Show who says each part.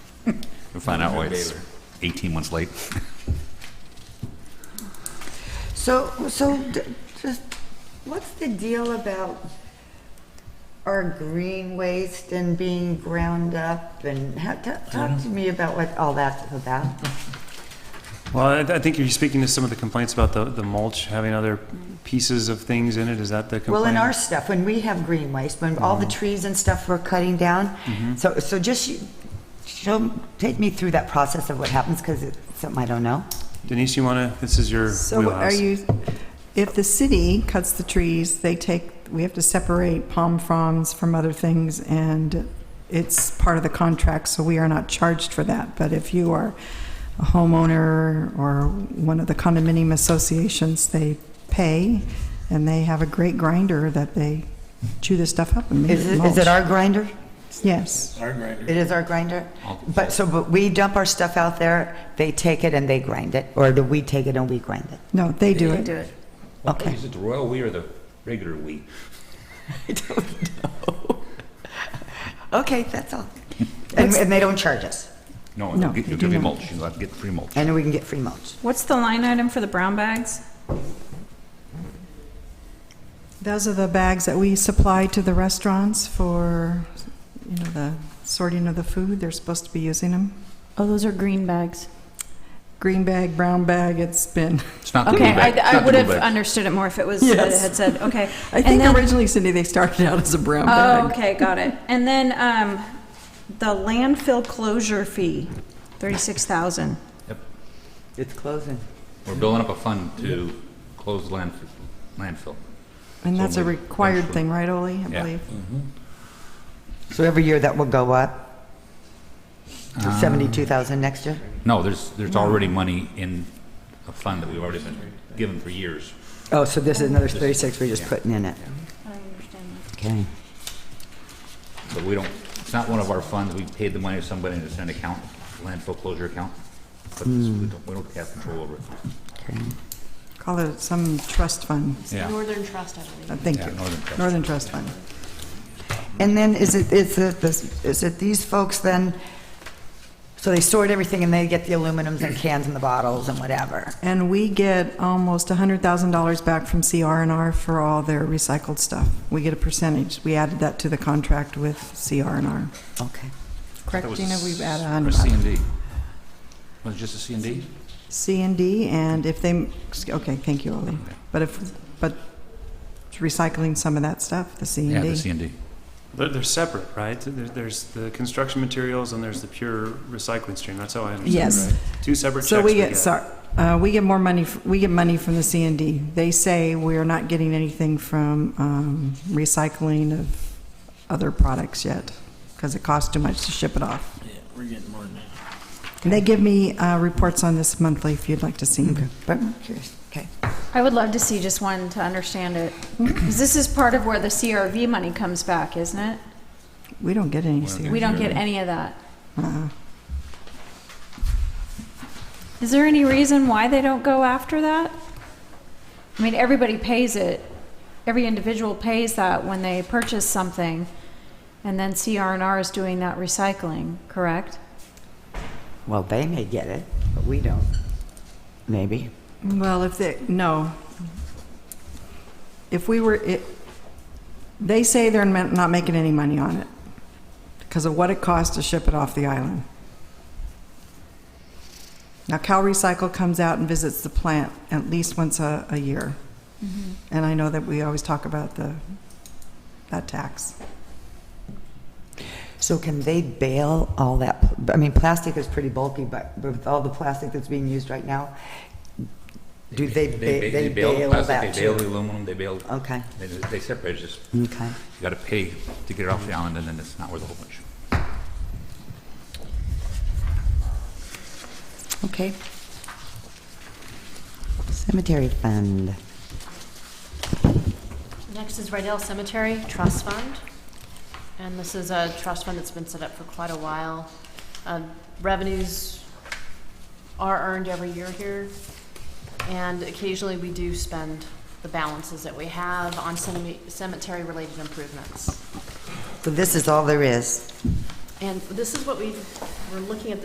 Speaker 1: find out why it's
Speaker 2: Baylor.
Speaker 1: 18 months late.
Speaker 3: So, so d- just, what's the deal about our green waste and being ground up? And ha- ta- talk to me about what all that's about.
Speaker 4: Well, I, I think you're speaking to some of the complaints about the, the mulch having other pieces of things in it. Is that the complaint?
Speaker 3: Well, in our stuff, when we have green waste, when all the trees and stuff we're cutting down, so, so just you- show, take me through that process of what happens, because it's something I don't know.
Speaker 4: Denise, you want to? This is your
Speaker 5: So
Speaker 4: wheelhouse.
Speaker 5: are you, if the city cuts the trees, they take, we have to separate palm fronds from other things, and it's part of the contract, so we are not charged for that. But if you are a homeowner or one of the condominium associations, they pay, and they have a great grinder that they chew the stuff up and make
Speaker 3: Is it,
Speaker 5: it
Speaker 3: is
Speaker 5: mulch.
Speaker 3: it our grinder?
Speaker 5: Yes.
Speaker 2: Our grinder.
Speaker 3: It is our grinder? But, so, but we dump our stuff out there, they take it and they grind it, or do we take it and we grind it?
Speaker 5: No, they do
Speaker 6: They do
Speaker 5: it.
Speaker 6: it.
Speaker 3: Okay.
Speaker 1: Is it the royal we or the regular we?
Speaker 3: Okay, that's all. And, and they don't charge us,
Speaker 1: No,
Speaker 5: No,
Speaker 1: you'll get-
Speaker 5: they
Speaker 1: you'll give
Speaker 5: do
Speaker 1: me
Speaker 5: not.
Speaker 1: mulch. You'll have to get free mulch.
Speaker 3: and we can get free mulch.
Speaker 6: What's the line item for the brown bags?
Speaker 5: Those are the bags that we supply to the restaurants for, you know, the sorting of the food. They're supposed to be using them.
Speaker 6: Oh, those are green bags.
Speaker 5: Green bag, brown bag, it's been.
Speaker 1: It's not the
Speaker 6: Okay,
Speaker 1: blue bag. It's
Speaker 6: I,
Speaker 1: not
Speaker 6: I
Speaker 1: the
Speaker 6: would
Speaker 1: blue
Speaker 6: have
Speaker 1: bag.
Speaker 6: understood it more if it was, that it
Speaker 5: Yes.
Speaker 6: had said, okay.
Speaker 5: I
Speaker 6: And
Speaker 5: think
Speaker 6: then-
Speaker 5: originally, Cindy, they started out as a brown
Speaker 6: Oh,
Speaker 5: bag.
Speaker 6: okay, got it. And then, um, the landfill closure fee, thirty-six thousand.
Speaker 3: It's closing.
Speaker 1: We're building up a fund to close landfill. landfill.
Speaker 5: And that's a
Speaker 1: So we-
Speaker 5: required
Speaker 1: that's-
Speaker 5: thing, right, Ollie? I
Speaker 1: Yeah.
Speaker 5: believe.
Speaker 3: So every year that will go up to seventy-two thousand next year?
Speaker 1: No, there's, there's already money in a fund that we've already been given for years.
Speaker 3: Oh, so this is another thirty-six we're just putting in it?
Speaker 6: I
Speaker 3: Okay.
Speaker 6: understand
Speaker 1: So we don't, it's not one of our funds. We paid the money to somebody and it's an account, landfill closure account. But it's- we don't, we don't have control over it.
Speaker 5: Call it some trust fund.
Speaker 1: Yeah.
Speaker 5: Uh, Thank
Speaker 1: Yeah,
Speaker 5: you.
Speaker 1: Northern Trust.
Speaker 5: Northern Trust Fund.
Speaker 3: And then is it, is it, this- is it these folks then, so they sort everything and they get the aluminums and cans and the bottles and whatever?
Speaker 5: And we get almost $100,000 back from CR&R for all their recycled stuff. We get a percentage. We added that to the contract with CR&R.
Speaker 3: Okay.
Speaker 5: Correct, Gina? We've added
Speaker 1: Or a
Speaker 5: 100,000.
Speaker 1: C and D. Was it just a C and D?
Speaker 5: C and D, and if they, okay, thank you, Ollie. But if, but recycling some of that stuff, the C
Speaker 1: Yeah, the
Speaker 5: and
Speaker 1: C
Speaker 5: D.
Speaker 1: and D.
Speaker 4: They're, they're separate, right? There- There's the construction materials and there's the pure recycling stream. That's how I understand.
Speaker 5: Yes.
Speaker 4: It, right? Two separate
Speaker 5: So
Speaker 4: checks.
Speaker 5: we get, sorry, uh, we get more money, f- we get money from the C and D. They say we're not getting anything from um, recycling of other products yet, because it costs too much to ship it off.
Speaker 2: Yeah, we're getting more than that.
Speaker 5: And they give me uh, reports on this monthly, if you'd like to see them.
Speaker 3: But I'm curious, okay.
Speaker 6: I would love to see just one to understand it, because this is part of where the CRV money comes back, isn't it?
Speaker 5: We don't get any
Speaker 1: We don't
Speaker 5: C.
Speaker 1: get
Speaker 6: We don't get any of that. Is there any reason why they don't go after that? I mean, everybody pays it. Every individual pays that when they purchase something, and then CR&R is doing that recycling, correct?
Speaker 3: Well, they may get it, but we don't. Maybe.
Speaker 5: Well, if they, no. If we were, it, they say they're ma- not making any money on it because of what it costs to ship it off the island. Now, Cal Recycle comes out and visits the plant at least once a, a year. And I know that we always talk about the, that tax.
Speaker 3: So can they bail all that, I mean, plastic is pretty bulky, but with all the plastic that's being used right now, do they,
Speaker 1: ba-
Speaker 3: ba- they
Speaker 1: bail
Speaker 3: bail
Speaker 1: plastic,
Speaker 3: that
Speaker 1: They bail
Speaker 3: too?
Speaker 1: the aluminum, they bail,
Speaker 3: Okay,
Speaker 1: they, they separate it, just, you
Speaker 3: okay.
Speaker 1: gotta pay to get it off the island, and then it's not worth a whole bunch.
Speaker 3: Okay. Cemetery fund.
Speaker 7: Next is Rydell Cemetery Trust Fund. And this is a trust fund that's been set up for quite a while. Uh, Revenues are earned every year here. And occasionally, we do spend the balances that we have on cemetery-related improvements.
Speaker 3: So this is all there is?
Speaker 7: And this is what we, we're looking at